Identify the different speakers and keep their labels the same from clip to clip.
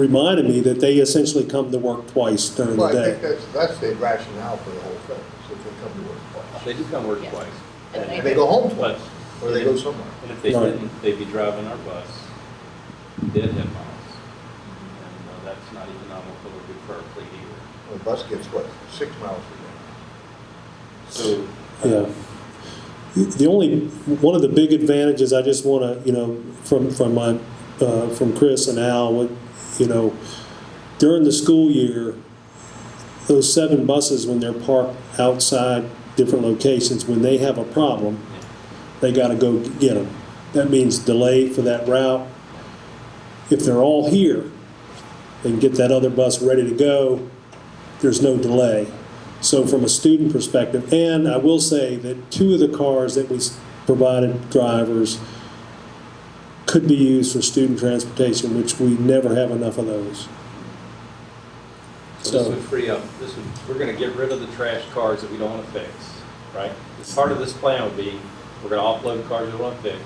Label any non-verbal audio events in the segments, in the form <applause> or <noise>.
Speaker 1: reminded me that they essentially come to work twice during
Speaker 2: Well,
Speaker 1: the
Speaker 2: I think
Speaker 1: day.
Speaker 2: that's, that's the rationale for the whole thing, so if they come to work twice.
Speaker 3: They do come work twice.
Speaker 4: And
Speaker 2: And they go home twice,
Speaker 3: But-
Speaker 2: or they go somewhere.
Speaker 3: And if they
Speaker 1: Right.
Speaker 3: didn't, they'd be driving our bus, dead head miles. And uh, that's not economical or good for our fleet either.
Speaker 2: The bus gets, what, six miles a
Speaker 3: So, uh,
Speaker 1: Yeah. The only, one of the big advantages, I just want to, you know, from, from my, uh, from Chris and Al, what, you know, during the school year, those seven buses, when they're parked outside different locations, when they have a problem, they got to go get them. That means delay for that route. If they're all here, they can get that other bus ready to go. There's no delay. So from a student perspective, and I will say that two of the cars that we s- provided drivers could be used for student transportation, which we never have enough of those.
Speaker 3: so this
Speaker 1: So-
Speaker 3: would free up, this would, we're gonna get rid of the trash cars that we don't wanna fix, right? Part of this plan would be, we're gonna offload cars we wanna fix.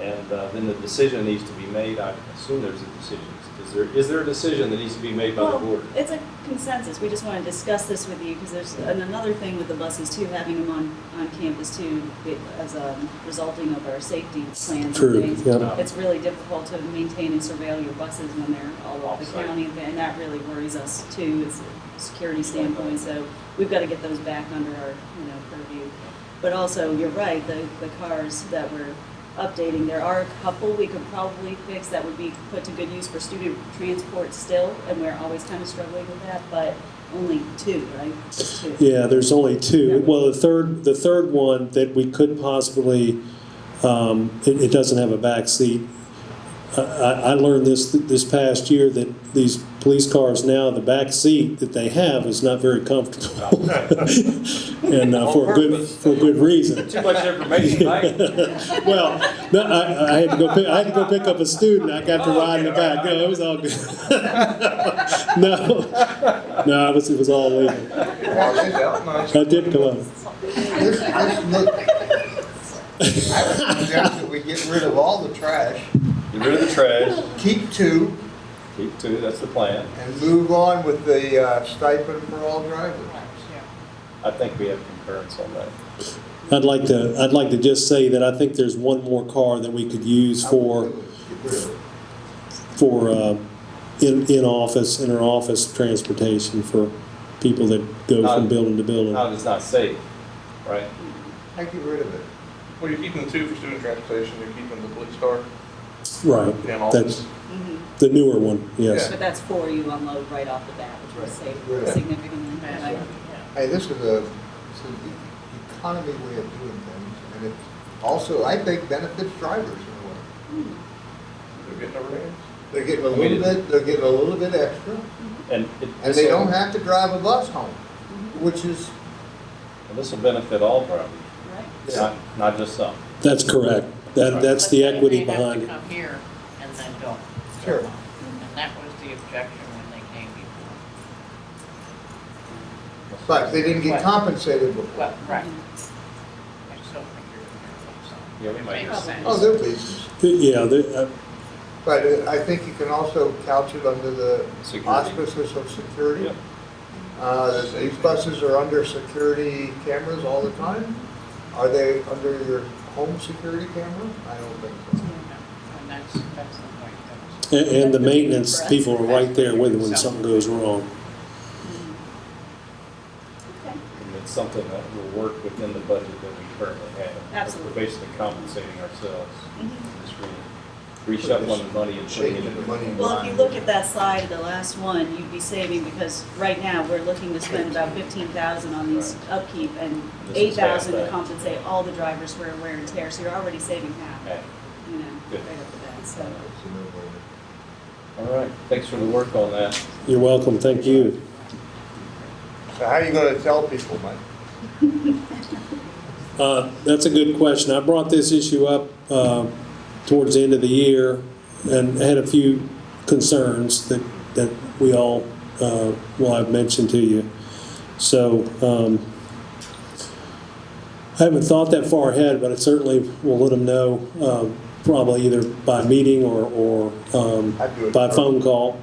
Speaker 3: And uh, then the decision needs to be made, I assume there's a decision. Is there, is there a decision that needs to be made by the board?
Speaker 4: Well, it's a consensus, we just want to discuss this with you, because there's an- another thing with the buses too, having them on, on campus too, be- as a resulting of our safety plans
Speaker 1: True,
Speaker 4: and things.
Speaker 1: yeah.
Speaker 4: It's really difficult to maintain and surveil your buses when they're all over the
Speaker 3: Offsite.
Speaker 4: county, and that really worries us too, as a security standpoint, so we've got to get those back under our, you know, purview. But also, you're right, the, the cars that we're updating, there are a couple we could probably fix that would be put to good use for student transport still, and we're always kind of struggling with that, but only two, right? Just two.
Speaker 1: Yeah, there's only
Speaker 4: Yeah.
Speaker 1: two. Well, the third, the third one that we could possibly, um, it, it doesn't have a backseat. I, I I learned this, this past year that these police cars now, the back seat that they have is not very comfortable. <laughs> And uh, for a good, for a good reason.
Speaker 3: Too much
Speaker 2: <laughs>
Speaker 3: information, right?
Speaker 1: Well, no, I, I had to go pick, I had to go pick up a student, I got to ride in the back, no, it was all good. <laughs> No, no, it was, it was all legal.
Speaker 2: day. Well, it's out, no, it's-
Speaker 1: I did come up. <laughs>
Speaker 2: This, this look. I would suggest that we get rid of all the trash,
Speaker 3: Get rid of the trash,
Speaker 2: keep two,
Speaker 3: keep two, that's the plan.
Speaker 2: and move on with the uh, stipend for all drivers.
Speaker 3: I think we have concurrence on that.
Speaker 1: I'd like to, I'd like to just say that I think there's one more car that we could use for,
Speaker 2: Get rid of it.
Speaker 1: for, uh, in, in office, in our office transportation for people that go from
Speaker 3: Not-
Speaker 1: building to building.
Speaker 3: Not, it's not safe, right?
Speaker 2: I get rid of it.
Speaker 5: Well, you're keeping the two for student transportation, you're keeping the police car
Speaker 1: Right,
Speaker 5: and
Speaker 1: that's
Speaker 5: office.
Speaker 4: Mhm.
Speaker 1: the newer one, yes.
Speaker 4: But that's four you unload right off the bat, which will save
Speaker 2: Right.
Speaker 4: significantly. Right.
Speaker 2: Hey, this is a, it's an e-, economy way of doing things, and it also, I think, benefits drivers in a way.
Speaker 5: They're getting over hands.
Speaker 2: They're getting a
Speaker 3: I mean,
Speaker 2: little
Speaker 3: it-
Speaker 2: bit, they're getting a little bit extra,
Speaker 3: And. it-
Speaker 2: and they
Speaker 3: this'll-
Speaker 2: don't have to drive a bus home, which is,
Speaker 3: and This will benefit all drivers,
Speaker 4: Right.
Speaker 3: not, not just some.
Speaker 1: That's correct. That, that's the equity behind
Speaker 6: They
Speaker 1: it.
Speaker 6: have to come here and then go.
Speaker 2: Sure.
Speaker 6: And that was the objection when they came before.
Speaker 2: but they didn't get
Speaker 6: Right.
Speaker 2: compensated before.
Speaker 6: Well, right. I still think you're in
Speaker 3: Yeah, we might
Speaker 6: there,
Speaker 3: hear
Speaker 6: so. Makes sense.
Speaker 2: Oh, there'll be, some.
Speaker 1: Yeah, the, uh,
Speaker 2: but uh, I think you can also couch it under the
Speaker 3: Security.
Speaker 2: auspices of security.
Speaker 3: Yep.
Speaker 2: Uh, that these buses are under security cameras all the time? Are they under your home security camera? I don't think so.
Speaker 6: And that's, that's the point that
Speaker 1: and, and the maintenance people are right there with it when something goes wrong.
Speaker 4: Okay.
Speaker 3: And it's something that will work within the budget that we currently have.
Speaker 4: Absolutely.
Speaker 3: We're basically compensating ourselves.
Speaker 4: Mhm.
Speaker 3: Just re- reshuffling the money and putting it
Speaker 2: Shaking the
Speaker 3: in.
Speaker 2: money.
Speaker 4: Well, if you look at that slide, the last one, you'd be saving, because right now, we're looking to spend about fifteen thousand on these upkeep and
Speaker 3: This
Speaker 4: eight
Speaker 3: is fast,
Speaker 4: thousand to
Speaker 3: right?
Speaker 4: compensate all the drivers for wear and tear, so you're already saving half,
Speaker 3: Okay.
Speaker 4: you know, right
Speaker 3: Good.
Speaker 4: up the bat,
Speaker 2: It's
Speaker 4: so.
Speaker 2: a no-brainer.
Speaker 3: All right, thanks for the work on that.
Speaker 1: You're welcome, thank you.
Speaker 2: So how are you gonna tell people, Mike?
Speaker 1: Uh, That's a good question. I brought this issue up uh, towards the end of the year and had a few concerns that, that we all, uh, well, I've mentioned to you. So um, I haven't thought that far ahead, but I certainly will let them know um, probably either by meeting or, or um,
Speaker 2: I'd do it.
Speaker 1: by phone call.